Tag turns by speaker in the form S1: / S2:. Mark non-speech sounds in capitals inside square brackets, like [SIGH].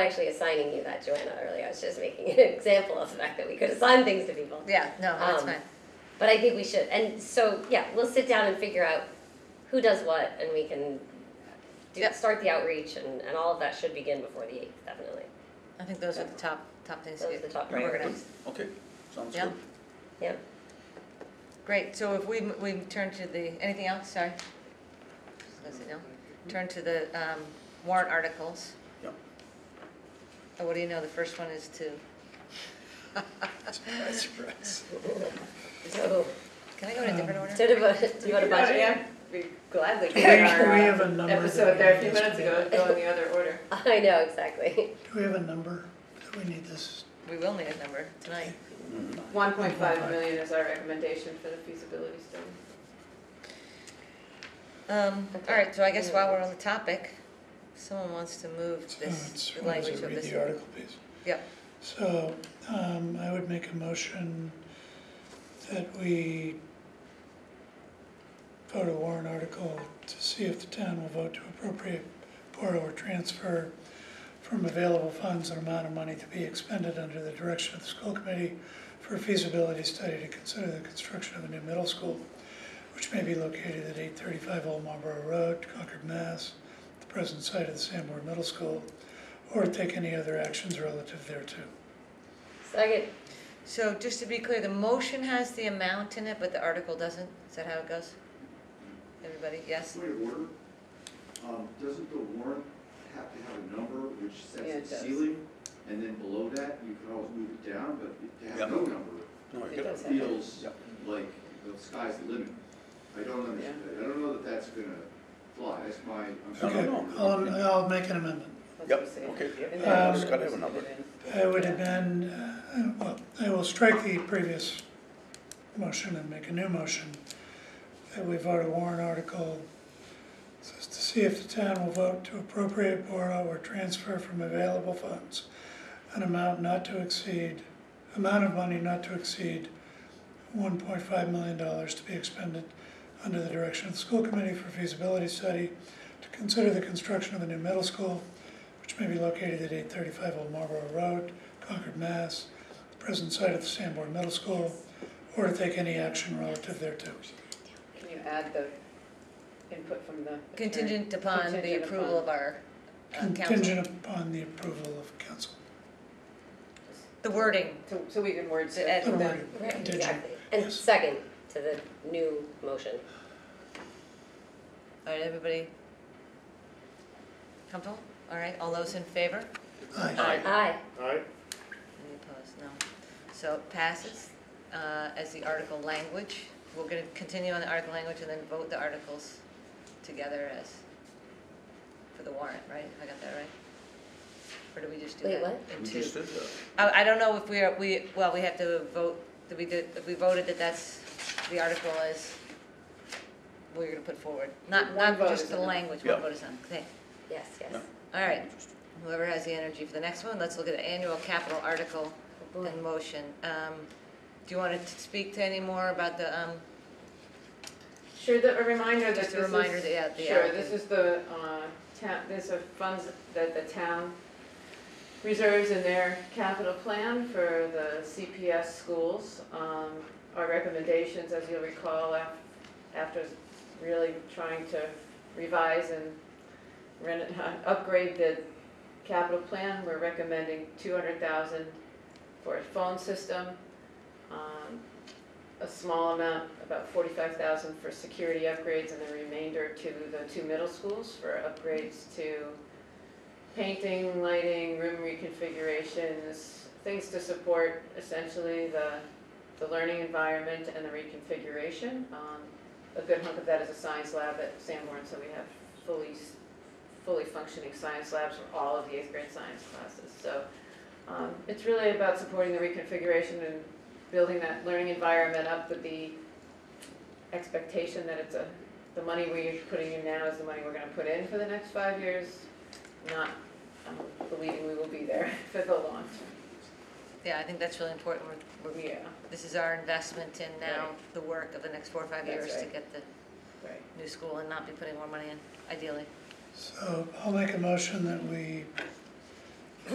S1: actually assigning you that, Joanna, earlier. I was just making an [LAUGHS] example of the fact that we could assign things to people.
S2: Yeah, no, that's
S1: Um,
S2: fine.
S1: But I think we should, and so, yeah, we'll sit down and figure out who does what, and we can do,
S2: Yep.
S1: start the outreach, and, and all of that should begin before the eighth, definitely.
S2: I think those are the top, top things to
S1: Those are the
S2: get
S1: top
S2: organized.
S1: priorities,
S3: Okay, sounds
S2: Yeah.
S3: good.
S1: yep.
S2: Great, so if we, m- we turn to the, anything else, sorry? Just gonna say no. Turn to the um, warrant articles.
S3: Yep.
S2: Oh, what do you know, the first one is to,
S3: Surprise, surprise.
S1: So,
S2: can I go in a different order?
S1: so do you want do you want a budget?
S4: [LAUGHS] Yeah, we gladly.
S5: We
S4: did our, uh,
S5: have a number.
S4: Episode
S5: that
S4: there a few
S5: needs to
S4: minutes
S5: be-
S4: ago, go in the other order.
S5: [LAUGHS]
S1: [LAUGHS] I know, exactly. [LAUGHS]
S5: Do we have a number that we need this?
S2: We will need a number tonight.
S4: One point five million is our recommendation for the feasibility study.
S2: Um,
S1: Okay.
S2: All right, so I guess while we're on the topic, someone wants to move
S5: Oh,
S2: this, the language of
S5: Read
S2: this.
S5: the article, please.
S2: Yep,
S5: So, um, I would make a motion that we vote a warrant article to see if the town will vote to appropriate, borrow, or transfer from available funds an amount of money to be expended under the direction of the school committee for a feasibility study to consider the construction of a new middle school, which may be located at eight thirty-five Old Marlborough Road, Concord, Mass., the present site of the Sanborn Middle School, or take any other actions relative thereto.
S1: Second,
S2: so just to be clear, the motion has the amount in it, but the article doesn't? Is that how it goes? Everybody, yes?
S6: Point of order, um, doesn't the warrant have to have a number which
S4: Yeah, it
S6: sets the
S4: does.
S6: ceiling? And then below that, you can always move it down, but to
S3: Yeah.
S6: have no number
S3: No,
S4: It
S3: you're good.
S4: does have-
S6: feels
S3: Yeah.
S6: like the sky's the limit. I don't understand, I don't know that that's gonna fly, that's my, I'm sorry.
S5: Okay,
S3: no,
S5: I'll, I'll make an amendment.
S4: That's
S3: Yep,
S4: what we say.
S3: okay.
S4: And
S5: Um,
S4: then-
S5: it's
S3: gotta have a number.
S5: I would amend, uh, well, I will strike the previous motion and make a new motion that we vote a warrant article says to see if the town will vote to appropriate, borrow, or transfer from available funds an amount not to exceed, amount of money not to exceed one point five million dollars to be expended under the direction of the school committee for feasibility study to consider the construction of a new middle school, which may be located at eight thirty-five Old Marlborough Road, Concord, Mass., the present site of the Sanborn Middle School, or to take any action relative thereto.
S4: Can you add the input from the? attorney?
S2: Contingent upon the
S4: Contingent
S2: approval
S4: upon-
S2: of our uh, council.
S5: Contingent upon the approval of council.
S2: The wording,
S4: So, so we can word
S2: The
S4: it
S2: ed-
S5: Don't
S4: then.
S5: worry,
S1: right,
S5: contingent.
S1: exactly. And
S5: Yes.
S1: second to the new motion.
S2: all right, everybody? Comfortable? All right, all those in favor?
S5: Aye.
S3: Aye.
S1: Aye,
S2: Any opposed? No. So it passes uh, as the article language. We're going to continue on the article language and then vote the articles together as, for the warrant, right? I got that right? Or do we just do
S1: Wait,
S2: that?
S1: what?
S2: in
S3: We
S2: two?
S3: just did that.
S2: I, I don't know if we are, we, well, we have to vote, that we did, if we voted that that's, the article is, we're gonna put forward. Not,
S4: One
S2: not
S4: vote
S2: just
S4: is
S2: the
S4: enough.
S2: language, one
S3: Yeah.
S2: vote is enough, okay.
S1: yes, yes.
S3: Yeah.
S2: All right, whoever has the energy for the next one, let's look at the annual capital article
S1: Oh, boy.
S2: in motion. Um, do you want to speak to any more about the, um,
S4: Sure, the, a reminder that this
S2: Just
S4: is.
S2: a reminder that, yeah, the
S4: Sure,
S2: applicant-
S4: this is the, uh, town, these are funds that the town reserves in their capital plan for the CPS schools. Um, our recommendations, as you'll recall, af- after really trying to revise and reno- [LAUGHS] upgrade the capital plan, we're recommending two hundred thousand for a phone system, um, a small amount, about forty-five thousand for security upgrades, and the remainder to the two middle schools for upgrades to painting, lighting, room reconfigurations, things to support essentially the, the learning environment and the reconfiguration. Um, A good hunk of that is a science lab at Sanborn, so we have fully, s- fully functioning science labs for all of the eighth grade science classes. So, um, it's really about supporting the reconfiguration and building that learning environment up with the expectation that it's a, the money we're putting in now is the money we're gonna put in for the next five years, not um, believing we will be there [LAUGHS] for the long
S2: yeah, I think that's really important. We're-
S4: term.
S2: We're,
S4: Yeah,
S2: this is our investment in now,
S4: Right.
S2: the work of the next four or five
S4: That's
S2: years to
S4: right.
S2: get the
S4: right.
S2: new school and not be putting more money in, ideally.
S5: So I'll make a motion that we